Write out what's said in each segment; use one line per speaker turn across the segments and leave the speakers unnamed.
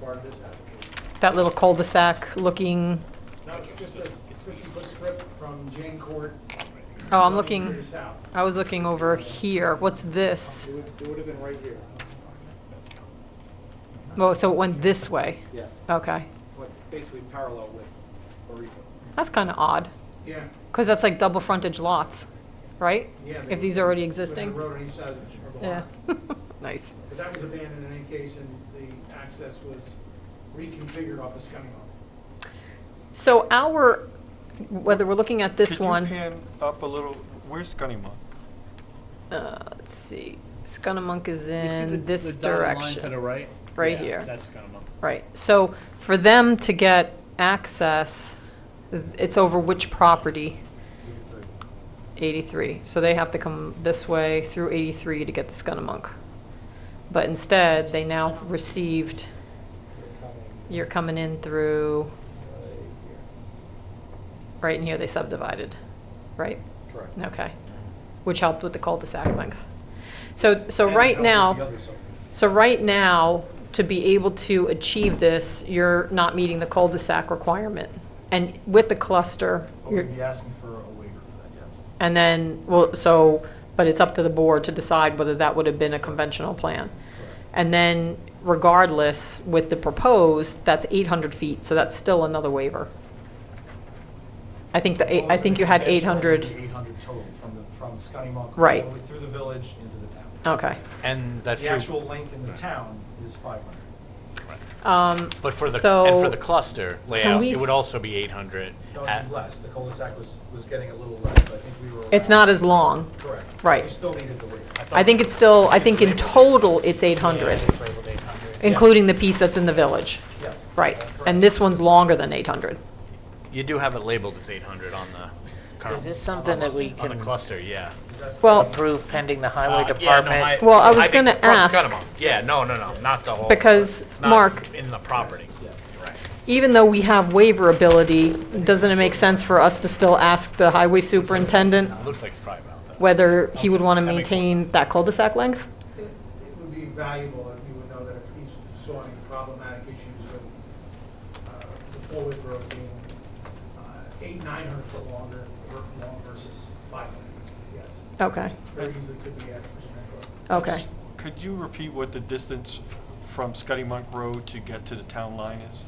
part of this application.
That little cul-de-sac looking,
No, it's just a 50-foot strip from Jane Court.
oh,
To
I'm
the
looking,
south.
I was looking over here. What's this?
It would, it would have been right here.
Oh, so it went this way?
Yes.
Okay.
Like basically parallel with Orico.
That's kind of odd,
Yeah.
because that's like double frontage lots, right?
Yeah, they-
If these are already
With the
existing?
road on each side of the- of the
Yeah.
lot.
Nice.
But that was abandoned in any case and the access was reconfigured off of Scunnamunk.
So our, whether we're looking at this one.
Could you pan up a little? Where's Scunnamunk?
Uh, let's see. Scunnamunk is
You see the-
in this
the dotted line
direction.
To the right?
Right
Yeah,
here.
That's Scunnamunk.
Right. So for them to get access, th- it's over which property? 83. So they have to come this way through 83 to get to Scunnamunk. But instead, they now received, you're coming in through, right in here, they subdivided, right?
Correct.
Okay. Which helped with the cul-de-sac length. So, so right now. So right now, to be able to achieve this, you're not meeting the cul-de-sac requirement. And with the cluster, you're,
asking for a waiver for that, yes.
and then, well, so, but it's up to the board to decide whether that would have been a conventional plan. And then regardless, with the proposed, that's 800 feet, so that's still another waiver. I think the, eight- I think you had 800,
Eight hundred total from the, from Scotty
Right.
Through the village into the town.
okay.
And that's
The
true.
actual length in the town is five hundred.
Um,
But for the, and for
so-
the cluster layout,
we
it would
s-
also be 800.
No,
at-
it'd be less, the cul-de-sac was, was getting a little less, I think we were.
It's
around-
not as long.
Correct.
right.
We still needed the waiver.
I think it's still, I think in total, it's 800,
labeled 800.
including the piece that's in the village.
Yes.
Right. And this one's longer than 800.
You do have it labeled as 800 on the current.
Is this something that we
On the
can
cluster, yeah.
Well,
approve pending the highway
Uh, yeah, no,
department?
Well, I was
think
gonna
from
ask-
Scunnamunk. Yeah, no, no, no, not the whole.
Because,
not
Mark-
In the property. Right.
even though we have waiver ability, doesn't it make sense for us to still ask the highway superintendent
Looks like it's probably about that.
whether he would want to
That makes more
maintain that cul-de-sac length?
It it would be valuable if you would know that if he's saw any problematic issues with uh, the forward road being uh, eight, nine hundred foot longer, ver- long versus five hundred, yes.
Okay,
Very easily could be asked for some input.
okay.
Could you repeat what the distance from Scunnamunk Road to get to the town line is?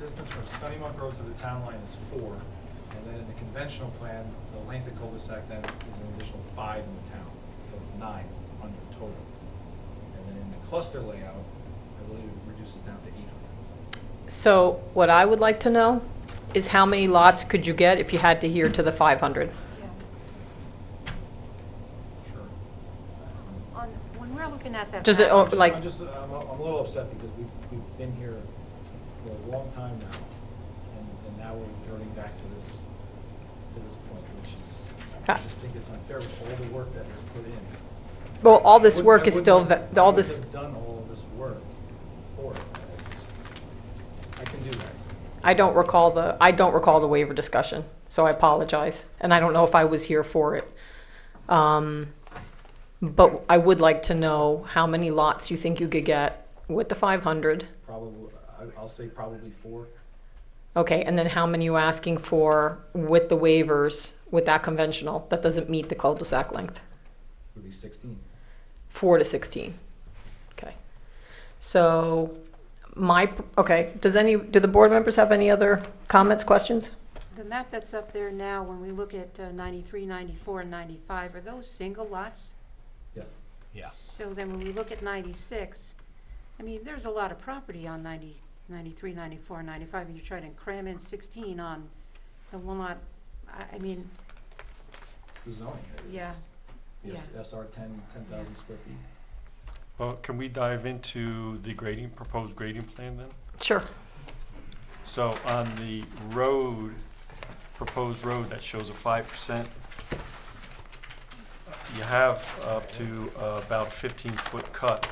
Distance from Scotty Road to the town line is four, and then in the conventional plan, the length of cul-de-sac then is an additional five in the town, so it's nine hundred total. And then in the cluster layout, I believe it reduces down to eight hundred.
So what I would like to know is how many lots could you get if you had to adhere to the 500?
Sure.
On, when we're looking at that.
Does it, oh,
map,
like-
I'm just, I'm, I'm a little upset because we, we've been here for a long time now, and, and now we're turning back to this, to this point, which is, I
Ah.
just think it's unfair with all the work that was put in.
Well, all this
Wouldn't-
work
I
is still,
wouldn't have-
va- all
I wouldn't
this,
have Done all of this work for it. I just- I can do that.
I don't recall the, I don't recall the waiver discussion, so I apologize. And I don't know if I was here for it. Um, But I would like to know how many lots you think you could get with the 500.
Probably, I- I'll say probably four.
Okay, and then how many you asking for with the waivers, with that conventional, that doesn't meet the cul-de-sac length?
would be 16.
Four to 16. Okay. So my, okay, does any, do the board members have any other comments, questions?
The map that's up there now, when we look at uh, 93, 94, and 95, are those single lots?
Yes.
Yeah.
So then when we look at 96, I mean, there's a lot of property on 90, 93, 94, and 95, and you're trying to cram in 16 on the one lot. I, I mean,
It's the zoning. area.
Yeah,
It's- Yes,
yeah.
SR 10, 10,000 square feet.
Well, can we dive into the grading, proposed grading plan then?
Sure.
So on the road, proposed road, that shows a five percent. You have up to uh, about fifteen foot cut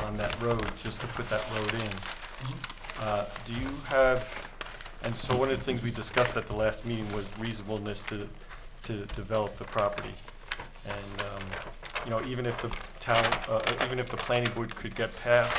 on that road, just to put that road in. Uh, Do you have, and so one of the things we discussed at the last meeting was reasonableness to, to develop the property. And, um, you know, even if the town, uh, uh, even if the planning board could get past